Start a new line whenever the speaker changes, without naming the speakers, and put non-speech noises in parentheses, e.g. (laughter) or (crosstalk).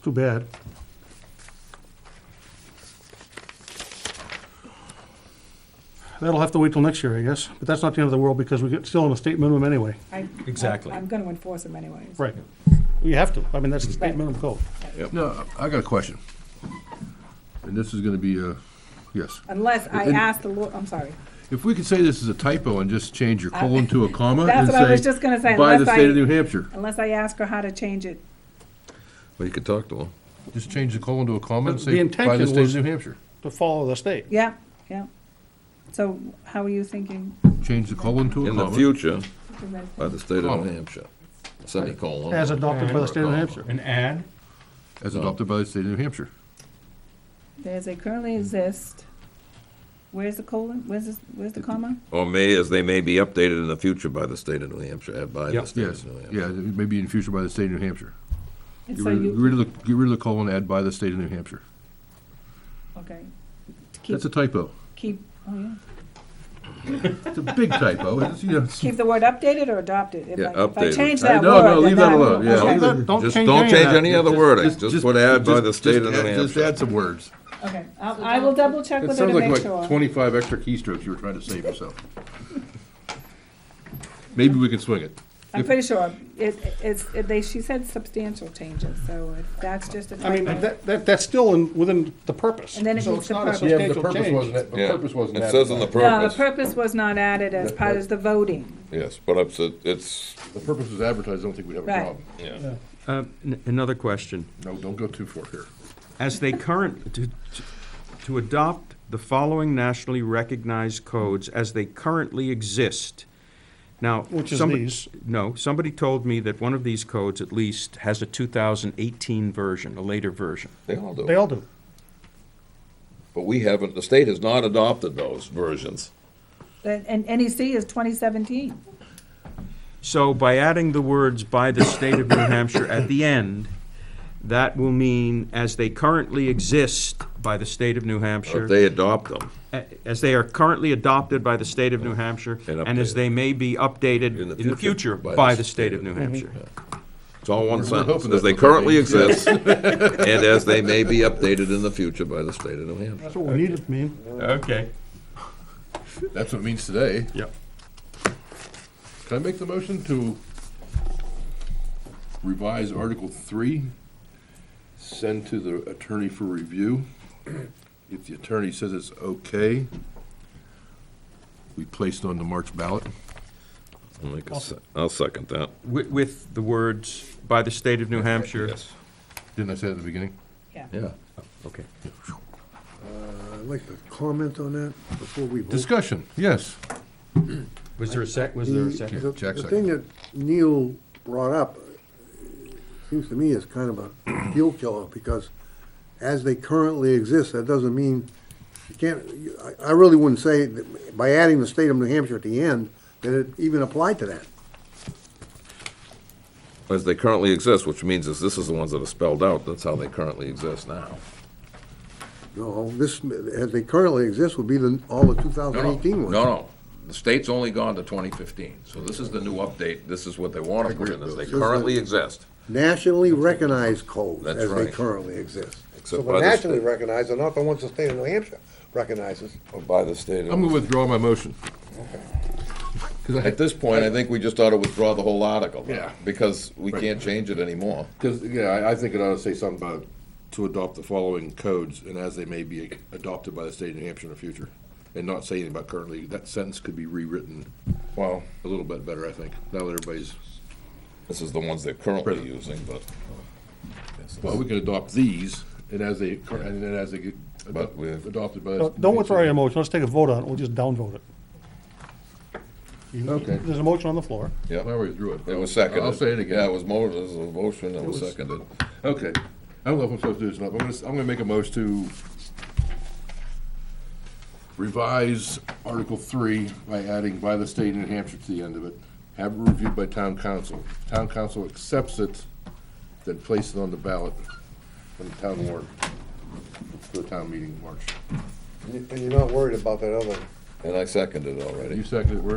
Too bad. That'll have to wait till next year, I guess, but that's not the end of the world because we get still on the state minimum anyway.
I-
Exactly.
I'm gonna enforce them anyways.
Right. We have to, I mean, that's the state minimum code.
No, I got a question. And this is gonna be a, yes.
Unless I
And-
ask the law, I'm sorry.
If we could say this is a typo and just change your
(laughs)
colon to a comma
That's
and
what I was
say,
just gonna say,
By the
unless
state
I-
of New Hampshire.
Unless I ask her how to change it.
Well, you could talk to him.
Just change the colon to a comma and
The-
say,
the
by the
intention
state
was-
of New Hampshire.
To follow the state.
Yeah, yeah. So how are you thinking?
Change the colon to a
In the
comma.
future,
Because I-
by the state of
Colin.
New Hampshire, semicolon.
As adopted by the state of New Hampshire.
An ad?
As adopted by the state of New Hampshire.
There's a currently exist, where's the colon, where's this, where's the comma?
Or may, as they may be updated in the future by the state of New Hampshire, uh, by the
Yep.
state
Yes,
of New Hampshire.
yeah, maybe in future by the state of New Hampshire.
And
Get
so
rid get
you,
rid of the, get rid of the colon, add by the state of New Hampshire.
okay. To Keep,
That's a typo.
keep, oh yeah.
It's a big typo. It's, you know, it's-
Keep the word updated or adopted? If
Yeah,
I- If I
updated.
change
Uh,
that
no,
word,
no,
then
leave that
I will-
alone, yeah.
okay,
Don't-
Just don't change any other wording, just put add by
just-
the state
just
of New
add- Just
Hampshire.
add some words.
Okay, I'll- I will double check
It
with her
sounds
to
like
make
like
sure.
twenty-five extra keystrokes you were trying to save yourself. Maybe we can swing it.
I'm pretty sure, it, it's, it- they, she said substantial changes, so if that's just a
I mean,
typo.
that, that, that's still in, within the purpose.
And then it
So
meets
it's
the
not a
purpose.
Yeah, but the
substantial
purpose
change.
wasn't, the
Yeah.
purpose wasn't.
It says in
No,
the
the
purpose,
Uh, purpose was not added as part of the voting.
yes, but it's, it's,
The purpose was advertised, I don't think we'd have a
Right.
problem.
yeah.
Uh, n- Another question.
No, don't go too far here.
As they current, to- to- to adopt the following nationally recognized codes as they currently exist. Now.
Which is
some-
these.
No, somebody told me that one of these codes at least has a 2018 version, a later version.
They all
They
do.
all do.
But we haven't, the state has not adopted those versions.
And, and NEC is twenty seventeen.
So by adding the words "by the state of New Hampshire" at the end, that will mean "as they currently exist by the state of New Hampshire."
If they adopt them
a- as they are currently adopted by the state of New Hampshire,
And
and as
updated.
they may be updated in the future by the state of New Hampshire.
It's all one sentence,
hoping
as
that's
they
what that
currently
means.
exist, and as they may be updated in the future by the state of New Hampshire.
That's what we needed, man.
Okay.
That's what it means today.
Yep.
Can I make the motion to revise Article Three, send to the attorney for review? If the attorney says it's okay, we place it on the March ballot.
I'll make a se- I'll second that.
With, with the words, "by the state of New Hampshire."
Yes.
Didn't I say that at the beginning?
Yeah.
Yeah, okay.
I'd like to comment on that before we vote.
Discussion, yes.
Was there a sec, was there a second?
The-
Jack
The
second.
thing that Neil brought up, uh, seems to me is kind of a deal killer, because as they currently exist, that doesn't mean, you can't, you- I- I really wouldn't say, that by adding the state of New Hampshire at the end, that it even applied to that.
As they currently exist, which means is this is the ones that are spelled out, that's how they currently exist now.
No, this, as they currently exist, would be the, all the 2018
No,
ones.
no, the state's only gone to twenty fifteen, so this is the new update, this is what they want to put in, as they currently exist.
Nationally recognized codes
That's
as they
right.
currently exist. So
Except by
the
the state.
nationally recognized are not the ones the state of New Hampshire recognizes.
Oh, By the state.
I'm gonna withdraw my motion.
At this point, I think we just ought to withdraw the whole article.
Yeah.
Because we can't change it anymore.
Because, yeah, I, I think it ought to say something about to adopt the following codes and as they may be adopted by the state of New Hampshire in the future. And not say anything about currently, that sentence could be rewritten
Well,
a little bit better, I think, now that everybody's,
this is the ones they're currently
Present.
using, but.
well, we can adopt these and as they, cur- and then as they get
But we-
adop- adopted by.
No,
the
Uh, Don't withdraw your motion, let's take a vote on it, we'll just downvote it. You-
Okay.
There's a motion on the floor.
Yeah,
I already drew it.
it was seconded.
I'll say it
Yeah, it
again.
was mo, it was a motion, it was
was-
seconded.
Okay. I don't know if I'm supposed to do this or not, but I'm gonna, I'm gonna make a motion to revise Article Three by adding by the state of New Hampshire to the end of it, have it reviewed by town council. Town council accepts it, then place it on the ballot on the town warrant for the town meeting in March.
And you- and you're not worried about that other
And I seconded already.
You seconded, where